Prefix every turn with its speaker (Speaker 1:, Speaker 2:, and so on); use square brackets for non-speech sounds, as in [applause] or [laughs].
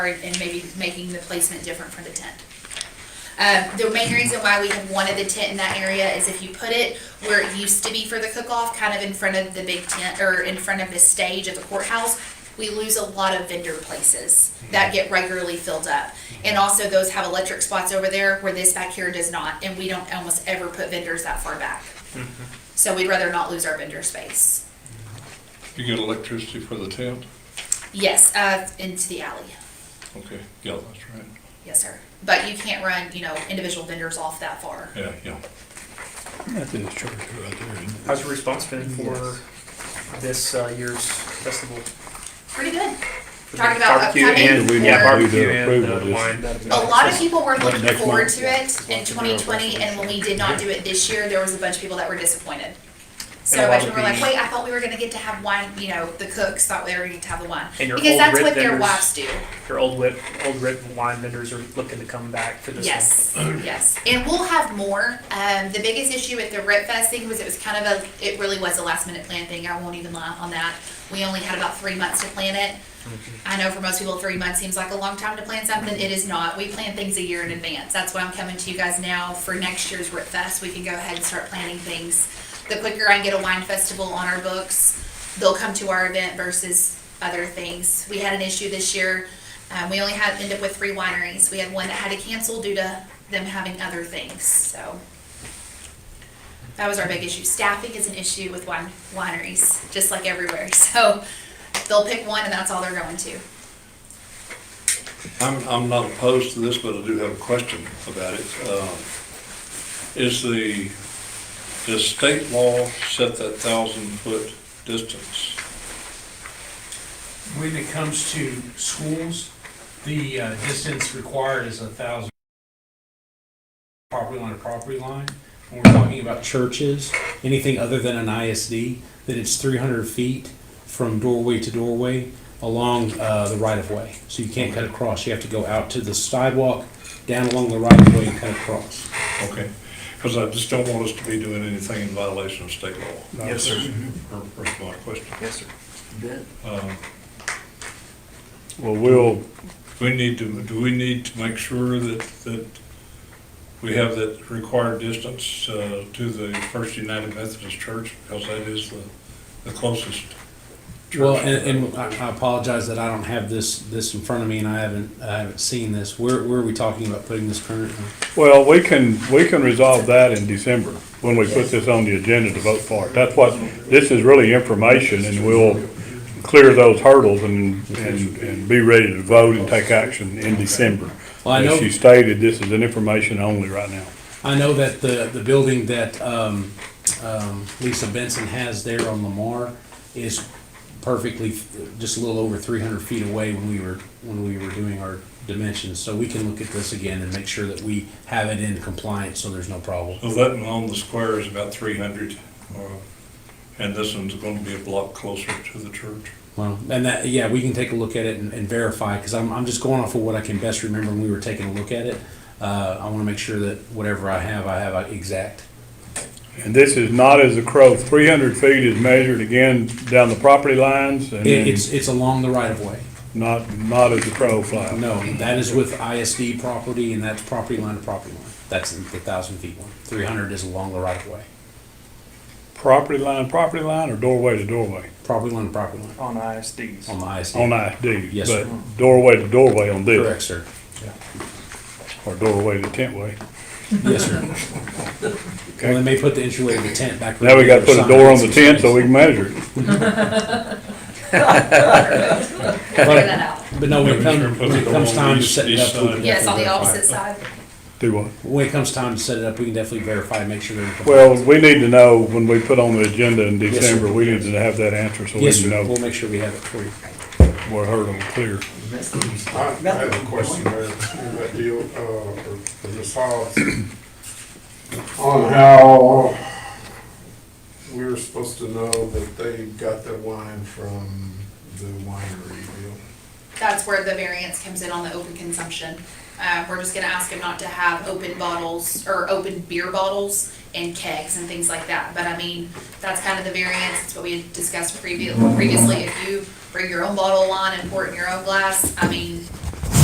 Speaker 1: and maybe making the placement different for the tent. Um, the main reason why we have wanted the tent in that area is if you put it where it used to be for the cook-off, kind of in front of the big tent, or in front of the stage of the courthouse, we lose a lot of vendor places that get regularly filled up. And also those have electric spots over there where this back here does not, and we don't almost ever put vendors that far back. So we'd rather not lose our vendor space.
Speaker 2: You get electricity for the tent?
Speaker 1: Yes, uh, into the alley.
Speaker 2: Okay, yeah, that's right.
Speaker 1: Yes, sir. But you can't run, you know, individual vendors off that far.
Speaker 2: Yeah, yeah.
Speaker 3: That's his church right there, isn't it?
Speaker 4: How's your response been for this uh, year's festival?
Speaker 1: Pretty good.
Speaker 4: For the
Speaker 1: Talking about
Speaker 4: barbecue
Speaker 1: upcoming
Speaker 4: and
Speaker 3: We need
Speaker 4: Yeah,
Speaker 1: for,
Speaker 3: to do
Speaker 4: barbecue
Speaker 3: the
Speaker 4: and
Speaker 3: approval
Speaker 4: the
Speaker 3: just-
Speaker 4: wine. that'd be
Speaker 1: a lot of
Speaker 4: nice.
Speaker 1: people were looking
Speaker 3: next
Speaker 1: forward
Speaker 3: month.
Speaker 1: to it in twenty twenty, and when we did not do it this year, there was a bunch of people that were disappointed. So
Speaker 4: And a
Speaker 1: a
Speaker 4: lot
Speaker 1: bunch of
Speaker 4: of
Speaker 1: people were like,
Speaker 4: these-
Speaker 1: wait, I thought we were gonna get to have wine, you know, the cooks thought we were gonna get to have the wine.
Speaker 4: And your
Speaker 1: Because
Speaker 4: old
Speaker 1: that's
Speaker 4: rib
Speaker 1: what their
Speaker 4: vendors-
Speaker 1: wives do.
Speaker 4: Your old whip, old rip wine vendors are looking to come back for this one.
Speaker 1: Yes, yes, and we'll have more. Um, the biggest issue with the Rip Fest thing was it was kind of a, it really was a last minute plan thing. I won't even lie on that. We only had about three months to plan it. I know for most people, three months seems like a long time to plan something. It is not. We plan things a year in advance. That's why I'm coming to you guys now for next year's Rip Fest. We can go ahead and start planning things. The quicker I can get a wine festival on our books, they'll come to our event versus other things. We had an issue this year. Um, we only had, ended up with three wineries. We had one that had to cancel due to them having other things, so. That was our big issue. Staffing is an issue with wine, wineries, just like everywhere, [laughs] so they'll pick one and that's all they're going to.
Speaker 2: I'm, I'm not opposed to this, but I do have a question about it. Um, Is the, does state law set that thousand foot distance?
Speaker 5: When it comes to schools, the uh, distance required is a thousand property line to property line. When we're talking about churches, anything other than an ISD, then it's three hundred feet from doorway to doorway along uh, the right of way. So you can't cut across. You have to go out to the sidewalk, down along the right of way and cut across.
Speaker 2: Okay, because I just don't want us to be doing anything in violation of state law.
Speaker 4: Yes, sir.
Speaker 2: Or, or my question.
Speaker 4: Yes, sir.
Speaker 2: Um,
Speaker 3: Well, we'll,
Speaker 2: We need to, do we need to make sure that, that we have that required distance uh, to the First United Methodist Church? Because that is the, the closest.
Speaker 5: Well, and, and I I apologize that I don't have this, this in front of me and I haven't, I haven't seen this. Where, where are we talking about putting this currently?
Speaker 3: well, we can, we can resolve that in December, when we put this on the agenda to vote for it. That's what, this is really information, and we'll clear those hurdles and, and, and be ready to vote and take action in December.
Speaker 5: Well, I know-
Speaker 3: As you stated, this is an information only right now.
Speaker 5: I know that the, the building that um, um, Lisa Benson has there on Lamar is perfectly, just a little over three hundred feet away when we were, when we were doing our dimensions. So we can look at this again and make sure that we have it in compliance, so there's no problem.
Speaker 2: So that one on the square is about three hundred, uh, and this one's going to be a block closer to the church.
Speaker 5: Well, and that, yeah, we can take a look at it and, and verify, because I'm, I'm just going off of what I can best remember when we were taking a look at it. Uh, I want to make sure that whatever I have, I have uh, exact.
Speaker 3: And this is not as a crow, three hundred feet is measured again down the property lines, and
Speaker 5: It,
Speaker 3: then
Speaker 5: it's, it's along the right of way.
Speaker 3: not, not as a crow flies.
Speaker 5: No, that is with ISD property and that's property line to property line. That's the thousand feet one. Three hundred is along the right of way.
Speaker 3: Property line, property line, or doorway to doorway?
Speaker 5: Property line to property line
Speaker 4: On ISDs.
Speaker 5: on the ISD.
Speaker 3: On ISD?
Speaker 5: Yes, sir.
Speaker 3: But doorway to doorway on this?
Speaker 5: Correct, sir.
Speaker 3: Or doorway to tentway?
Speaker 5: Yes, sir. Well, they may put the entryway of the tent back.
Speaker 3: Now we gotta put a door on the tent so
Speaker 5: tent.
Speaker 3: we can measure it.
Speaker 1: Figure that out.
Speaker 5: But no, when it comes, when it comes time to
Speaker 2: East-
Speaker 5: set it
Speaker 2: east
Speaker 5: up. we
Speaker 2: side.
Speaker 5: can
Speaker 1: Yes, on the
Speaker 5: definitely verify it.
Speaker 1: opposite side.
Speaker 3: Do what?
Speaker 5: When it comes time to set it up, we can definitely verify and make sure they're. in compliance.
Speaker 3: Well, we need to know when we put on the agenda in
Speaker 5: Yes, sir.
Speaker 3: December, we need to have that answer so we
Speaker 5: Yes,
Speaker 3: can
Speaker 5: sir.
Speaker 3: know
Speaker 5: We'll make sure we have it for you.
Speaker 3: what hurdle to clear.
Speaker 6: I I have a question there, in that deal, uh, for for Ms. Hobbs, on how we were supposed to know that they got their wine from the winery deal.
Speaker 1: That's where the variance comes in on the open consumption. Uh, we're just gonna ask them not to have open bottles or open beer bottles and kegs and things like that. But I mean, that's kind of the variance, it's what we had discussed previ- previously. If you bring your own bottle of wine and pour it in your own glass, I mean,